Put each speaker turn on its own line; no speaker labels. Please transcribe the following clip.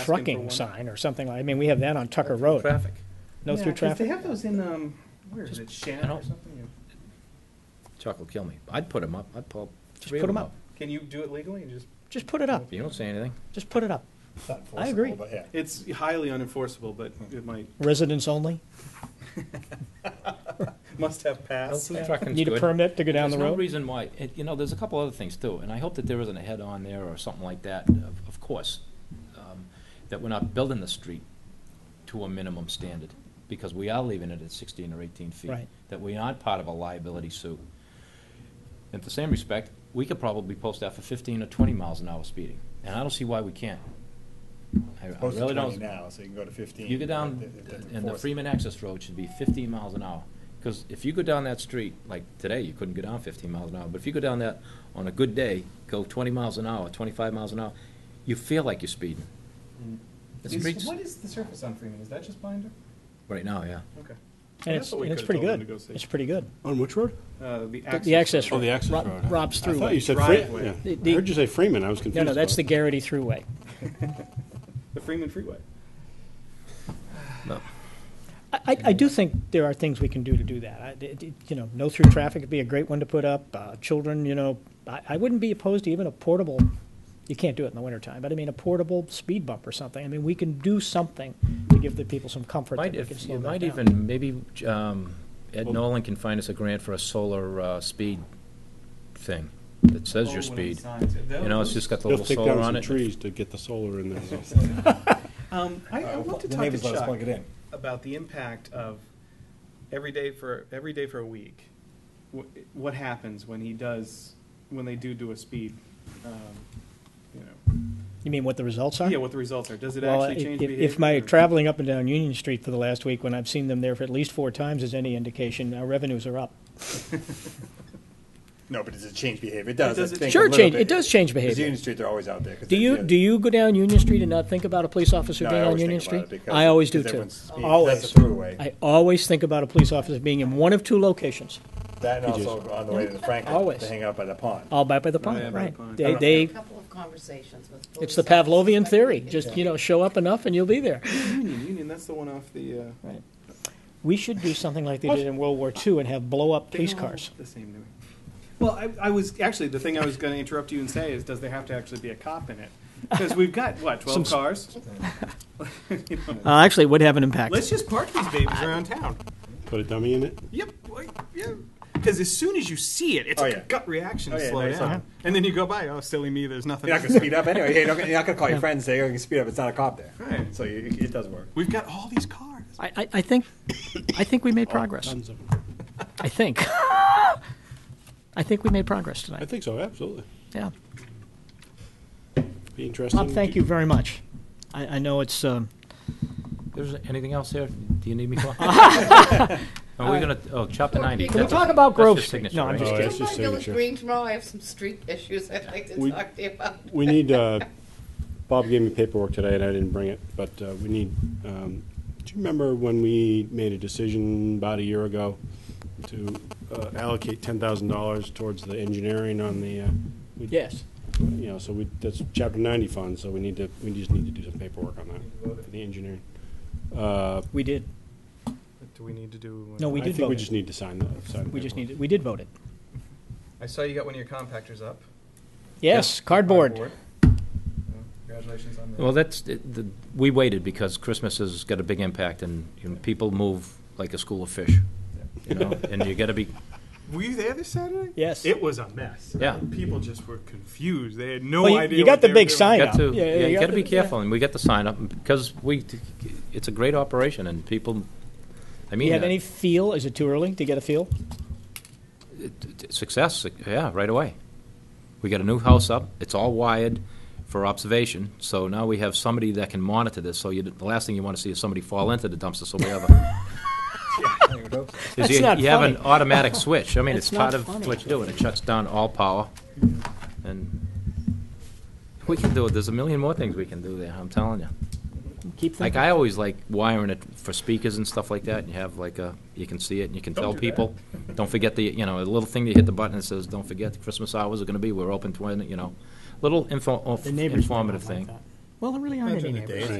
asking for
trucking
one.
sign or something like, I mean, we have that on Tucker Road,
Traffic.
no
Yeah,
through
'cause They
traffic.
have those in, um, where is it, Shannon or
don't-
something?
Chuck will kill me. I'd put them up. I'd pull
Just
three
put
of
'em
them
up.
up.
Can you do it legally and just,
Just put it up,
You don't say anything.
just put it up.
Not
I agree.
enforceable, but yeah.
it's highly unenforceable, but it might,
Residents only,
must have passed.
Trucking's
need a
good.
permit to go down the
There's no
road.
reason why, it- you know, there's a couple other things too, and I hope that there isn't a head-on there or something like that, of of course, um, that we're not building the street to a minimum standard, because we are leaving it at 16 or 18 feet.
Right.
That we aren't part of a liability suit. In the same respect, we could probably post that for 15 or 20 miles an hour speeding, and I don't see why we can't. I- I
Supposed to
really don't.
twenty now, so you can go to fifteen.
You go
if they-
down,
if they
and the
enforce it.
Freeman Access Road should be 15 miles an hour. Because if you go down that street, like today, you couldn't go down 15 miles an hour, but if you go down that on a good day, go 20 miles an hour, 25 miles an hour, you feel like you're speeding. Mm. The
Is-
streets,
What is the surface on Freeman? Is that just binder?
right now, yeah.
Okay.
And it's, and it's pretty good, it's pretty good.
On which road?
Uh, the
The-
access.
The access
Oh,
road.
the access
Rob-
road.
Rob's
I thought you
Thruway.
said
Driveway.
Freeman.
The-
yeah.
the-
I heard you say Freeman, I was confused
No, no, that's the
about it.
Garrity Thruway.
The Freeman Freeway.
I, I- I do think there are things we can do to do that. I, it- it- you know, no through traffic would be a great one to put up. Uh, children, you know, I, I wouldn't be opposed to even a portable, you can't do it in the wintertime, but I mean, a portable speed bump or something. I mean, we can do something to give the people some comfort that
Might,
we can
if,
slow
you
that
might
down.
even, maybe um, Ed Nolan can find us a grant for a solar uh, speed thing that says
Oh,
your speed. You know, it's just got the
They'll
little
take
solar
down
on
some
it.
trees to get the solar in there.
Um, I, I want to
The
talk to
neighbors let us
Chuck
plug it in.
about the impact of every day for, every day for a week. What, what happens when he does, when they do do a speed, um, you know,
You mean what the results are?
yeah, what the results are. Does it
Well,
actually change
if-
behavior?
if- If my
or-
traveling up and down Union Street for the last week, when I've seen them there for at least four times, is any indication, our revenues are up.
No, but does it change behavior? It does. I
does- it
think, a
Sure
little
change-
bit.
it does change
'Cause
behavior.
Union Street, they're always out there. 'cause
Do
they're-
you
yeah.
do you go down Union Street and not think about a police officer
No, I
being on
always
Union
think about
Street?
it because-
I always do
because
too.
everyone's speeding.
Always.
That's a throughway.
I always think about a police officer being in one of two locations,
That and also on the way to the Franklin,
Always.
to hang out by the pond.
all by by the
yeah,
pond,
by the
right?
pond.
They they
A couple of conversations with
it's
police
the Pavlovian
officers, but
theory.
it's
Just you know, show up enough and you'll be there.
Union, Union, that's the one off the, uh.
Right. We should do something like they did in World War II and have blow up
they
police
all look
cars.
The same to me. Well, I, I was, actually, the thing I was gonna interrupt you and say is, does there have to actually be a cop in it? Because we've got, what,
Some
twelve
s-
cars? You know,
Uh, actually, it would have an impact.
Let's just park these babies around town.
Put a dummy in it?
Yep. like, Yeah. Because as soon as you see it, it's
Oh,
like a
yeah.
gut reaction to
Oh, yeah,
slow
no, it's
down.
not.
And then you go by, oh, silly me, there's nothing.
You're not gonna speed up anyway. You're not gonna, you're not gonna call your friends and say, oh, you can speed up. It's not a cop there.
Right.
So you, it does work.
We've got all these cars.
I, I, I think I think we made progress.
Oh, Tons of 'em.
I think I think we made progress
I
tonight.
think so, absolutely.
Yeah.
Be interesting.
Bob, thank you very much. I, I know it's. Um,
There's anything else there? Do you need me for? Are we gonna, oh, chapter ninety.
Can we
That's-
talk about
that's your
Grove Street?
signature,
No, I'm
right?
just
Oh,
Come
that's
by
just
Village
signature.
Green tomorrow, I have some street issues I'd like to
We-
talk to you about.
We need, uh, Bob gave me paperwork today and I didn't bring it, but uh, we need, um, do you remember when we made a decision about a year ago to uh, allocate ten thousand dollars towards the engineering on the, uh, we-
yes.
you know, so we, that's chapter ninety fund, so we need to, we just need to do some paperwork on that, for the engineering. Uh,
We did.
Do we need to do?
No, we
I
did
think
vote
we
it.
just need to sign the, sign the
We just
paperwork.
need it. We did vote it.
I saw you got one of your compactors up.
Yes, cardboard.
Congratulations on that.
Well, that's, the- the- we waited because Christmas has got a big impact and, you know, people move like a school of fish. You know, and you gotta be,
were you there this Saturday?
Yes.
It was a mess.
Yeah.
People just were confused. They had no
Well, you-
idea.
you got
what
the
they were
big
doing.
sign.
got to,
Yeah, yeah,
yeah,
you
you
got
gotta be
to- yeah.
careful and we got the sign up because we, it's a great operation and people,
Do
I
you
mean,
have any
uh,
feel? Is it too early to get a feel?
it- it- success, yeah, right away. We got a new house up, it's all wired for observation, so now we have somebody that can monitor this, so you, the last thing you wanna see is somebody fall into the dumpster, so we have a is
That's
you,
not
you have
funny.
an automatic switch. I mean,
That's
it's part
not
of
funny.
what you do, and it shuts down all power. And we can do it. There's a million more things we can do there. I'm telling you.
Keep
Like
thinking.
I always like wiring it for speakers and stuff like that. And you have like a, you can see it and you can tell
do that.
people. Don't forget the, you know, a little thing that you hit the button that says, "Don't forget the Christmas hours are going to be. We're open to it." You know, little info,
the neighbors might not
informative
like
thing.
that. Well, there really aren't any neighbors.